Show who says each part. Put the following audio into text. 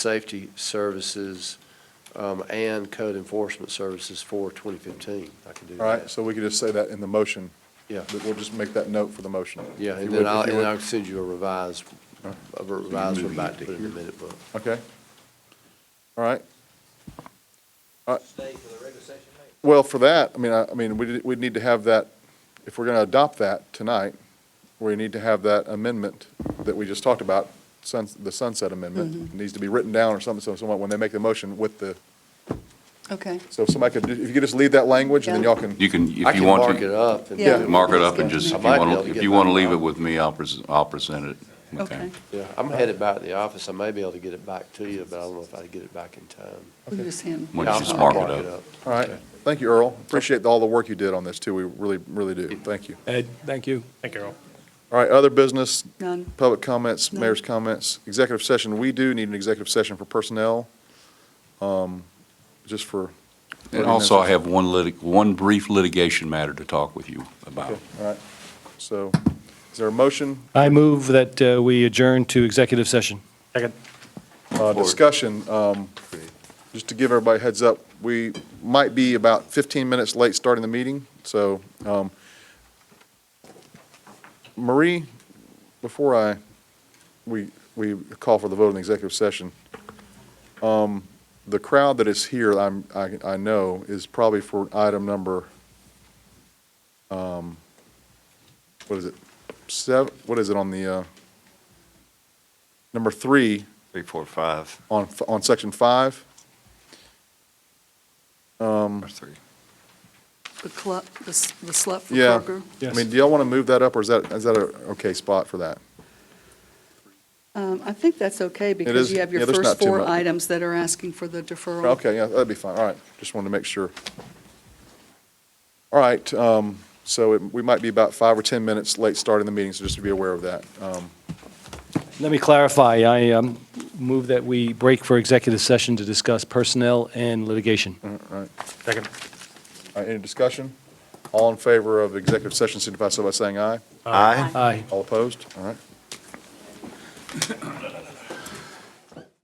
Speaker 1: safety services um, and code enforcement services for 2015. I can do
Speaker 2: All right,
Speaker 1: that.
Speaker 2: so we could just say that in the motion.
Speaker 1: Yeah.
Speaker 2: But We'll just make that note for the motion.
Speaker 1: Yeah,
Speaker 2: If
Speaker 1: and
Speaker 2: you would,
Speaker 1: then
Speaker 2: if
Speaker 1: I'll,
Speaker 2: you
Speaker 1: and
Speaker 2: would.
Speaker 1: I'll send you a revised,
Speaker 2: All right.
Speaker 1: a revised one back to put in the minute book.
Speaker 2: Okay. All right. Uh,
Speaker 3: Stay for the regular session, mate?
Speaker 2: Well, for that, I mean, I, I mean, we'd, we'd need to have that, if we're gonna adopt that tonight, we need to have that amendment that we just talked about, suns, the sunset amendment, needs to be written down or something, so someone, when they make the motion with the,
Speaker 4: Okay,
Speaker 2: so if somebody could, if you could just leave that language, and then
Speaker 4: Yeah.
Speaker 2: y'all can,
Speaker 5: You can, if you
Speaker 1: I
Speaker 5: want to.
Speaker 1: can mark it up. and
Speaker 4: Yeah.
Speaker 1: do
Speaker 5: mark it up and
Speaker 4: Yeah.
Speaker 5: just,
Speaker 1: I
Speaker 5: if you
Speaker 1: might be able
Speaker 5: want
Speaker 1: to
Speaker 5: to,
Speaker 1: get
Speaker 5: if you
Speaker 1: that
Speaker 5: want to leave it
Speaker 1: out.
Speaker 5: with me, I'll, pres- I'll present it.
Speaker 4: okay.
Speaker 1: Yeah, I'm headed back to the office. I may be able to get it back to you, but I don't know if I can get it back in time.
Speaker 4: We just hand-
Speaker 5: Why
Speaker 1: Yeah,
Speaker 5: don't you just
Speaker 1: I'll-
Speaker 4: Okay.
Speaker 5: mark it
Speaker 1: I'll
Speaker 5: up.
Speaker 2: all right. Thank you, Earl. Appreciate all the work you did on this, too. We really, really do. Thank you.
Speaker 6: Ed, thank you. Thank you, Earl.
Speaker 2: All right, other business,
Speaker 4: None,
Speaker 2: Public comments,
Speaker 4: No.
Speaker 2: mayor's comments, executive session, we do need an executive session for personnel, um, just for.
Speaker 5: And also, I have one litig, one brief litigation matter to talk with you about.
Speaker 2: Okay, All right, so, is there a motion,
Speaker 6: I move that uh, we adjourn to executive session. Second.
Speaker 2: uh, discussion? um, Just to give everybody a heads up, we might be about 15 minutes late starting the meeting, so, um, Marie, before I, we, we call for the vote in the executive session, um, the crowd that is here, I'm, I, I know, is probably for item number, um, what is it? Seven, what is it on the, uh, number three
Speaker 7: Three, four, five,
Speaker 2: on, f- on section five?
Speaker 7: or three.
Speaker 4: the club, the s- the slut for
Speaker 2: Yeah.
Speaker 4: Kroger.
Speaker 2: I mean, do y'all want to move that up, or is that, is that a okay spot for that?
Speaker 4: Um, I think that's okay
Speaker 2: is-
Speaker 4: because you have
Speaker 2: yeah,
Speaker 4: your
Speaker 2: there's
Speaker 4: first
Speaker 2: not too
Speaker 4: four
Speaker 2: much.
Speaker 4: items that are asking for the deferral.
Speaker 2: Okay, yeah, that'd be fine, all right, just wanted to make sure. All right, um, so it- we might be about five or 10 minutes late starting the meeting, so just to be aware of that. Um,
Speaker 6: Let me clarify. I um, move that we break for executive session to discuss personnel and litigation. Second.
Speaker 2: All right, any discussion? All in favor of executive session signify so by saying aye.
Speaker 7: Aye.
Speaker 6: Aye.
Speaker 2: All opposed? All right.